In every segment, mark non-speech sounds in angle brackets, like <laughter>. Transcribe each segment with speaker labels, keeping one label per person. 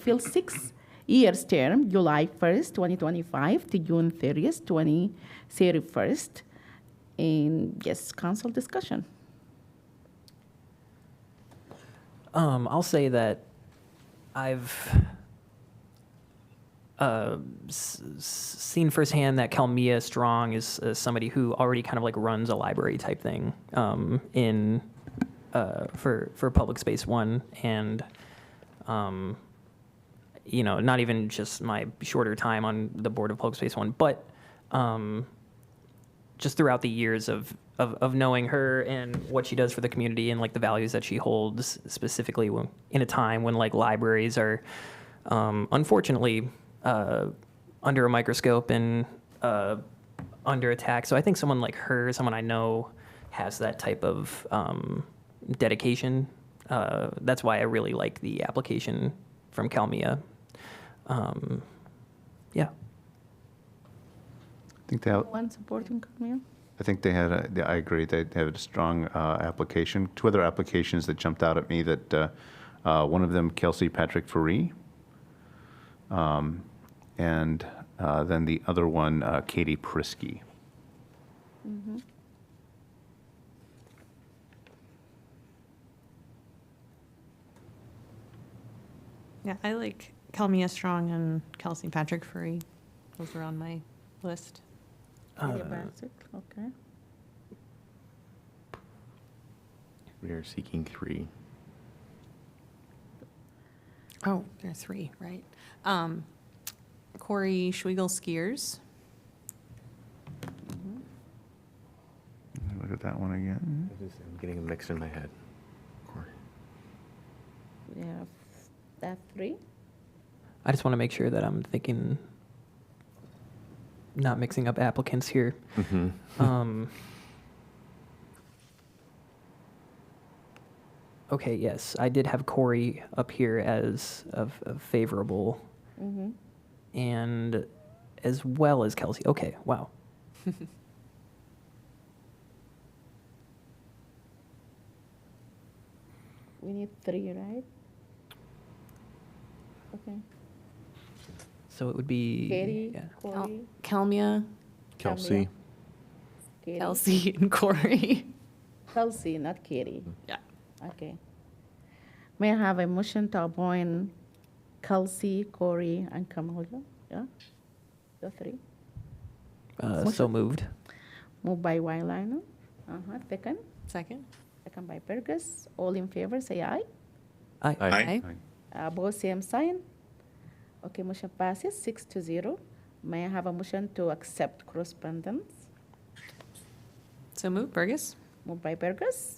Speaker 1: fill six years term, July 1st, 2025 to June 30th, 2031. And yes, council discussion.
Speaker 2: Um, I'll say that I've uh, s- s- seen firsthand that Kalmia Strong is uh, somebody who already kind of like runs a library type thing um, in uh, for for Public Space One, and um, you know, not even just my shorter time on the board of Public Space One, but um, just throughout the years of, of of knowing her and what she does for the community and like the values that she holds specifically when, in a time when like libraries are um, unfortunately uh, under a microscope and uh, under attack. So I think someone like her, someone I know, has that type of um, dedication. Uh, that's why I really like the application from Calmia. Um, yeah.
Speaker 3: I think they, have-
Speaker 1: One supporting Camille?
Speaker 3: I think they had, a- yeah, I agree, they they had a strong uh, application. Two other applications that jumped out at me that, uh, uh, one of them Kelsey Patrick Faree. um, And uh, then the other one uh, Katie Prisky.
Speaker 4: Yeah, I like Kelmia Strong and Kelsey Patrick Free. Those were on my list.
Speaker 1: Mayor
Speaker 2: Uh,
Speaker 1: Bassett, Okay.
Speaker 5: We are seeking three.
Speaker 4: Oh, there are three, right? Um, Corey Schwegel Skiers.
Speaker 3: Look at that one again.
Speaker 5: I'm getting a mix in my head.
Speaker 1: We have that three.
Speaker 2: I just want to make sure that I'm thinking, not mixing up applicants here.
Speaker 5: Mm-hmm.
Speaker 2: Um, okay, yes, I did have Corey up here as of, of favorable,
Speaker 1: Mhm.
Speaker 2: and as well as Kelsey. Okay, wow.
Speaker 1: We need three, right? Okay.
Speaker 2: So it would be
Speaker 1: Katie,
Speaker 2: yeah.
Speaker 4: Oh,
Speaker 1: Corey,
Speaker 4: Kelmia,
Speaker 5: <laughs> Kelsey.
Speaker 1: Katie.
Speaker 4: Kelsey, and <laughs> Corey.
Speaker 1: Kelsey, not Katie.
Speaker 4: Yeah.
Speaker 1: Okay. May I have a motion to appoint Kelsey, Corey, and Kamala? Yeah? The three.
Speaker 2: Uh, so moved.
Speaker 1: Moved by Wylino. Uh-huh, second.
Speaker 4: Second?
Speaker 1: Second by Burgess. All in favor, say aye.
Speaker 2: I,
Speaker 4: Aye.
Speaker 1: Both same sign. Okay, motion passes six to zero. May I have a motion to accept correspondence?
Speaker 4: So move, Burgess?
Speaker 1: Moved by Burgess.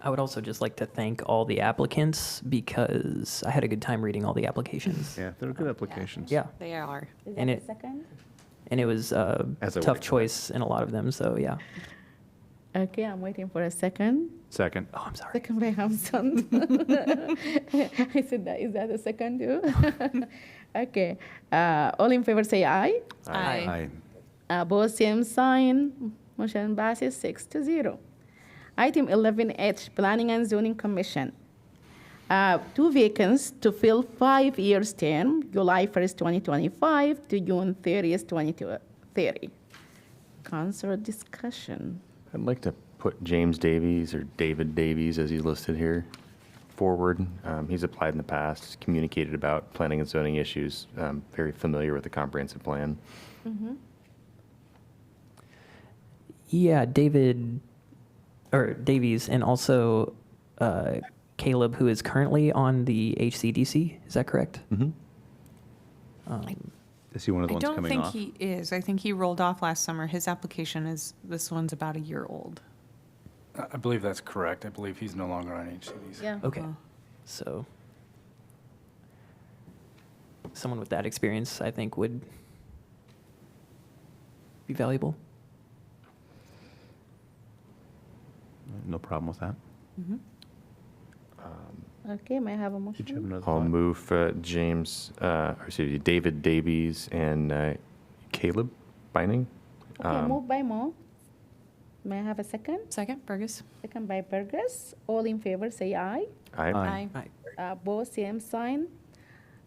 Speaker 2: I would also just like to thank all the applicants because I had a good time reading all the applications.
Speaker 3: Yeah, they're good applications.
Speaker 2: Yeah.
Speaker 4: They are.
Speaker 1: Is
Speaker 2: And
Speaker 1: that
Speaker 2: it-
Speaker 1: the second?
Speaker 2: And it was uh, a
Speaker 3: As I would
Speaker 2: tough
Speaker 3: expect.
Speaker 2: choice in a lot of them. So, yeah.
Speaker 1: Okay, I'm waiting for a second.
Speaker 3: Second.
Speaker 2: Oh, I'm sorry.
Speaker 1: Second by Hamson. <laughs> I said that. Is that the second too? <laughs> okay. Uh, all in favor say aye.
Speaker 4: Aye.
Speaker 3: Aye.
Speaker 1: Opposed, same sign. Motion passes six to zero. Item 11H, Planning and Zoning Commission. Uh, Two vacancies to fill five years term, July 1st, 2025 to June 30th, 2030. Council discussion.
Speaker 5: I'd like to put James Davies or David Davies, as he's listed here, forward. Um, he's applied in the past, communicated about planning and zoning issues, um, very familiar with the comprehensive plan.
Speaker 2: Yeah, David or Davies, and also uh, Caleb, who is currently on the HCDC. Is that correct?
Speaker 5: Mm-hmm.
Speaker 2: Um,
Speaker 3: Is he one of the
Speaker 4: I
Speaker 3: ones
Speaker 4: don't
Speaker 3: coming
Speaker 4: think
Speaker 3: off?
Speaker 4: he is. I think he rolled off last summer. His application is, this one's about a year old.
Speaker 6: I I believe that's correct. I believe he's no longer on HCDC.
Speaker 1: Yeah.
Speaker 2: okay,
Speaker 4: Oh.
Speaker 2: so someone with that experience, I think, would be valuable.
Speaker 3: No problem with that.
Speaker 4: Mm-hmm.
Speaker 1: Okay, may I have a
Speaker 3: Did you have
Speaker 1: motion?
Speaker 3: another
Speaker 5: I'll
Speaker 3: thought?
Speaker 5: move uh, James, uh, or excuse me, David Davies and uh, Caleb Binding.
Speaker 1: Okay, moved by Mo. May I have a second?
Speaker 4: Second, Burgess?
Speaker 1: Second by Burgess. All in favor, say aye.
Speaker 5: Aye.
Speaker 3: Aye.
Speaker 2: Right.
Speaker 1: Uh, Both same sign.